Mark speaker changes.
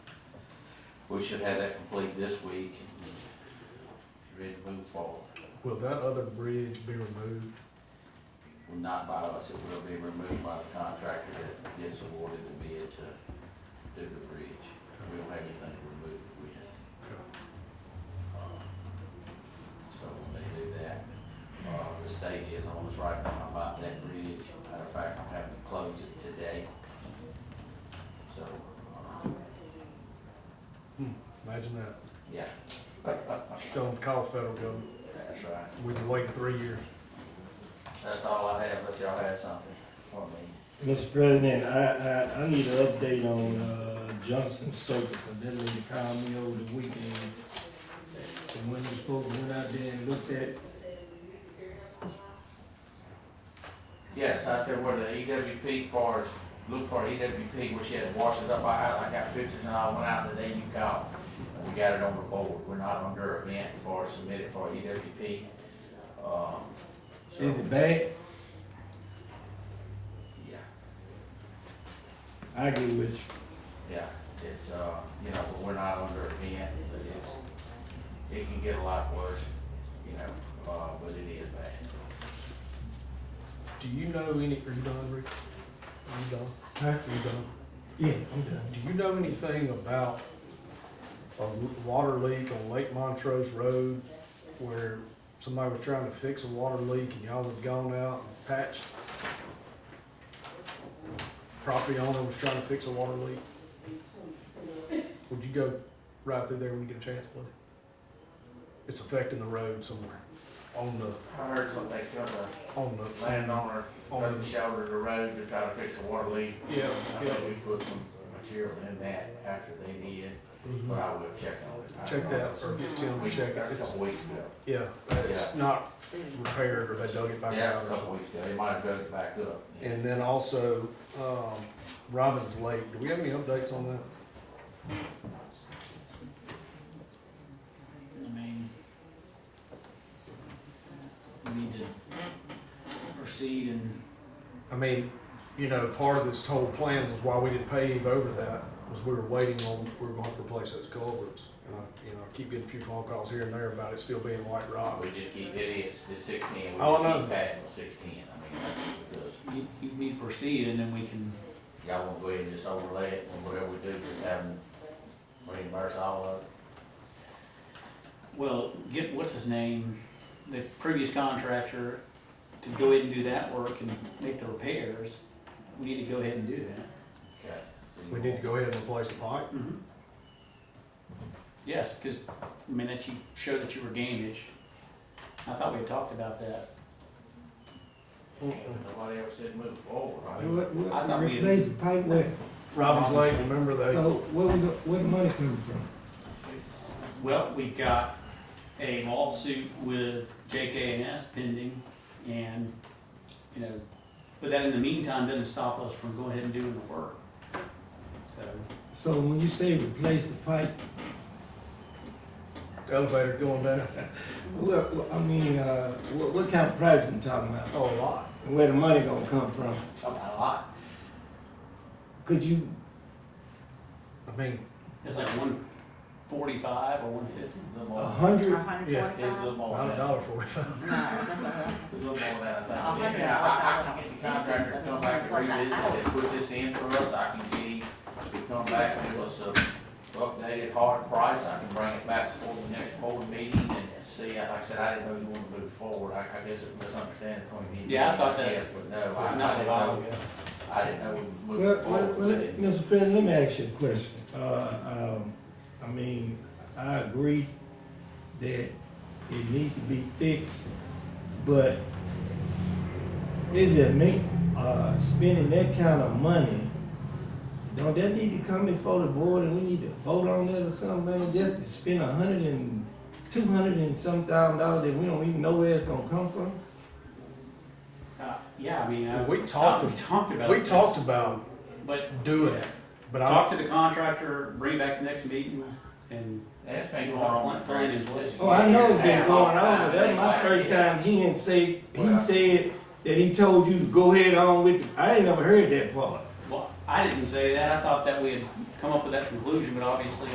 Speaker 1: we should have that complete this week and ready to move forward.
Speaker 2: Will that other bridge be removed?
Speaker 1: Well, Not by us, it will be removed by the contractor that gets awarded the bid to do the bridge. We don't have anything removed if we have. So when they do that, uh, the state is on us right now about that bridge. Matter of fact, I'm having to close it today. So, uh,
Speaker 2: Hmm, Imagine that.
Speaker 1: yeah,
Speaker 2: Tell them to call the federal government.
Speaker 1: that's right.
Speaker 2: We've been waiting three years.
Speaker 1: That's all I have, unless y'all have something for me.
Speaker 3: Mr. President, I, I, I need an update on, uh, Johnson Soap, because that lady called me over the weekend. And when you spoke, went out there and looked at,
Speaker 1: Yes, out there where the E EWP cars, look for E EWP, where she had washed it up by house, I got pictures and I went out the day you called. We got it on the board, we're not under event for, submitted for EWP. Um, so,
Speaker 3: is it bad?
Speaker 1: Yeah.
Speaker 3: I agree with you.
Speaker 1: Yeah, it's, uh, you know, but we're not under a ban, but it's, it can get a lot worse, you know, uh, but it is bad.
Speaker 2: Do you know any, are you done, Rick? Are you done?
Speaker 3: Huh?
Speaker 2: Are you done?
Speaker 3: Yeah, I'm done.
Speaker 2: Do you know anything about a l- water leak on Lake Montrose Road where somebody was trying to fix a water leak and y'all had gone out and patched? Property owner was trying to fix a water leak? Would you go right through there when you get a chance, please? It's affecting the road somewhere, on the,
Speaker 1: I heard something, they killed
Speaker 2: on
Speaker 1: a
Speaker 2: the.
Speaker 1: landowner,
Speaker 2: On
Speaker 1: on
Speaker 2: the-
Speaker 1: the shoulder of the road to try to fix a water leak.
Speaker 2: Yeah,
Speaker 1: I
Speaker 2: yeah.
Speaker 1: think we put some material in that after they did, but I will check on it. I
Speaker 2: Mhm. Check
Speaker 1: don't
Speaker 2: that,
Speaker 1: know.
Speaker 2: or get Tim
Speaker 1: We-
Speaker 2: to check
Speaker 1: A
Speaker 2: it, it's,
Speaker 1: couple weeks ago.
Speaker 2: yeah, it's not repaired or they dug it back
Speaker 1: Yeah,
Speaker 2: out
Speaker 1: a
Speaker 2: or something.
Speaker 1: couple weeks ago, they might have dug it back up.
Speaker 2: And then also, um, Robbins Lake, do we have any updates on that?
Speaker 4: I mean, we need to proceed and,
Speaker 2: I mean, you know, part of this whole plan was why we didn't pave over that, was we were waiting on, if we were gonna have to replace those culverts. And I, you know, I keep getting a few phone calls here and there about it still being white rock.
Speaker 1: We just keep, it is, it's sixteen, we
Speaker 2: Oh,
Speaker 1: just
Speaker 2: no.
Speaker 1: keep patching sixteen, I mean, that's what it does.
Speaker 4: you, you need to proceed and then we can,
Speaker 1: Y'all wanna go ahead and just overlay it, and whatever we do, just have them reimburse all of it?
Speaker 4: well, get, what's his name? The previous contractor to go ahead and do that work and make the repairs. We need to go ahead and do that.
Speaker 1: Okay. so you
Speaker 2: We need to
Speaker 1: want-
Speaker 2: go ahead and replace the pipe.
Speaker 4: Yes, because, I mean, that you showed that you were gamish. I thought we had talked about that.
Speaker 1: Yeah, Nobody else did move forward, right?
Speaker 5: And What,
Speaker 4: I thought
Speaker 5: what,
Speaker 4: we-
Speaker 5: replace the pipe where,
Speaker 2: Robbins Lake, remember they,
Speaker 5: so where we, go- where the money coming from?
Speaker 4: Well, we got a lawsuit with JKNS pending and, you know, but that in the meantime doesn't stop us from going ahead and doing the work. So,
Speaker 5: So when you say replace the pipe,
Speaker 2: the elevator going down,
Speaker 5: what, what- I mean, uh, what, what kind of price we talking about?
Speaker 2: oh, a lot.
Speaker 5: And where the money gonna come from?
Speaker 4: talking about a lot.
Speaker 5: Could you,
Speaker 2: I mean,
Speaker 4: It's like one forty-five or one fifty.
Speaker 1: A little more,
Speaker 5: a
Speaker 2: Uh-huh.
Speaker 5: hundred,
Speaker 2: Yeah.
Speaker 1: it's a little more
Speaker 2: not a
Speaker 1: than, a
Speaker 2: dollar forty-five.
Speaker 1: little more than I
Speaker 6: A hundred
Speaker 1: think.
Speaker 6: and
Speaker 1: Yeah, I, I can get the
Speaker 6: one thousand, I was
Speaker 1: contractor to
Speaker 6: thinking,
Speaker 1: come back and
Speaker 6: that's what
Speaker 1: revisit this,
Speaker 6: I
Speaker 1: put this in for us, I can get him to come back and give us a updated hard price, I can bring it back for the next board meeting and see, like I said, I didn't know you wanted to move forward, I, I guess it was misunderstanding between me and you.
Speaker 4: Yeah, I thought that-
Speaker 1: guess, But no, I, I
Speaker 4: Not
Speaker 1: didn't
Speaker 4: at all.
Speaker 1: know. I didn't know we were
Speaker 5: well,
Speaker 1: moving
Speaker 5: well,
Speaker 1: forward
Speaker 5: well,
Speaker 1: with
Speaker 5: let-
Speaker 1: it.
Speaker 5: Mr. President, let me ask you a question. Uh, um, I mean, I agree that it needs to be fixed, but is it me, uh, spending that kind of money? Don't that need to come before the board and we need to vote on that or something, man? Just to spend a hundred and, two hundred and some thousand dollars that we don't even know where it's gonna come from?
Speaker 4: Uh, Yeah, I mean, I.
Speaker 2: We
Speaker 4: thought
Speaker 2: talked,
Speaker 4: We talked about.
Speaker 2: we
Speaker 4: this,
Speaker 2: talked about
Speaker 4: But
Speaker 2: doing it, but I,
Speaker 4: talk to the contractor, bring it back to next meeting and
Speaker 1: That's been going on. for years.
Speaker 5: Oh, I know it's been going on, but that's my first time he didn't say, he said that he told you to go ahead on with, the- I ain't never heard that part.
Speaker 4: Well, I didn't say that. I thought that we had come up with that conclusion, but obviously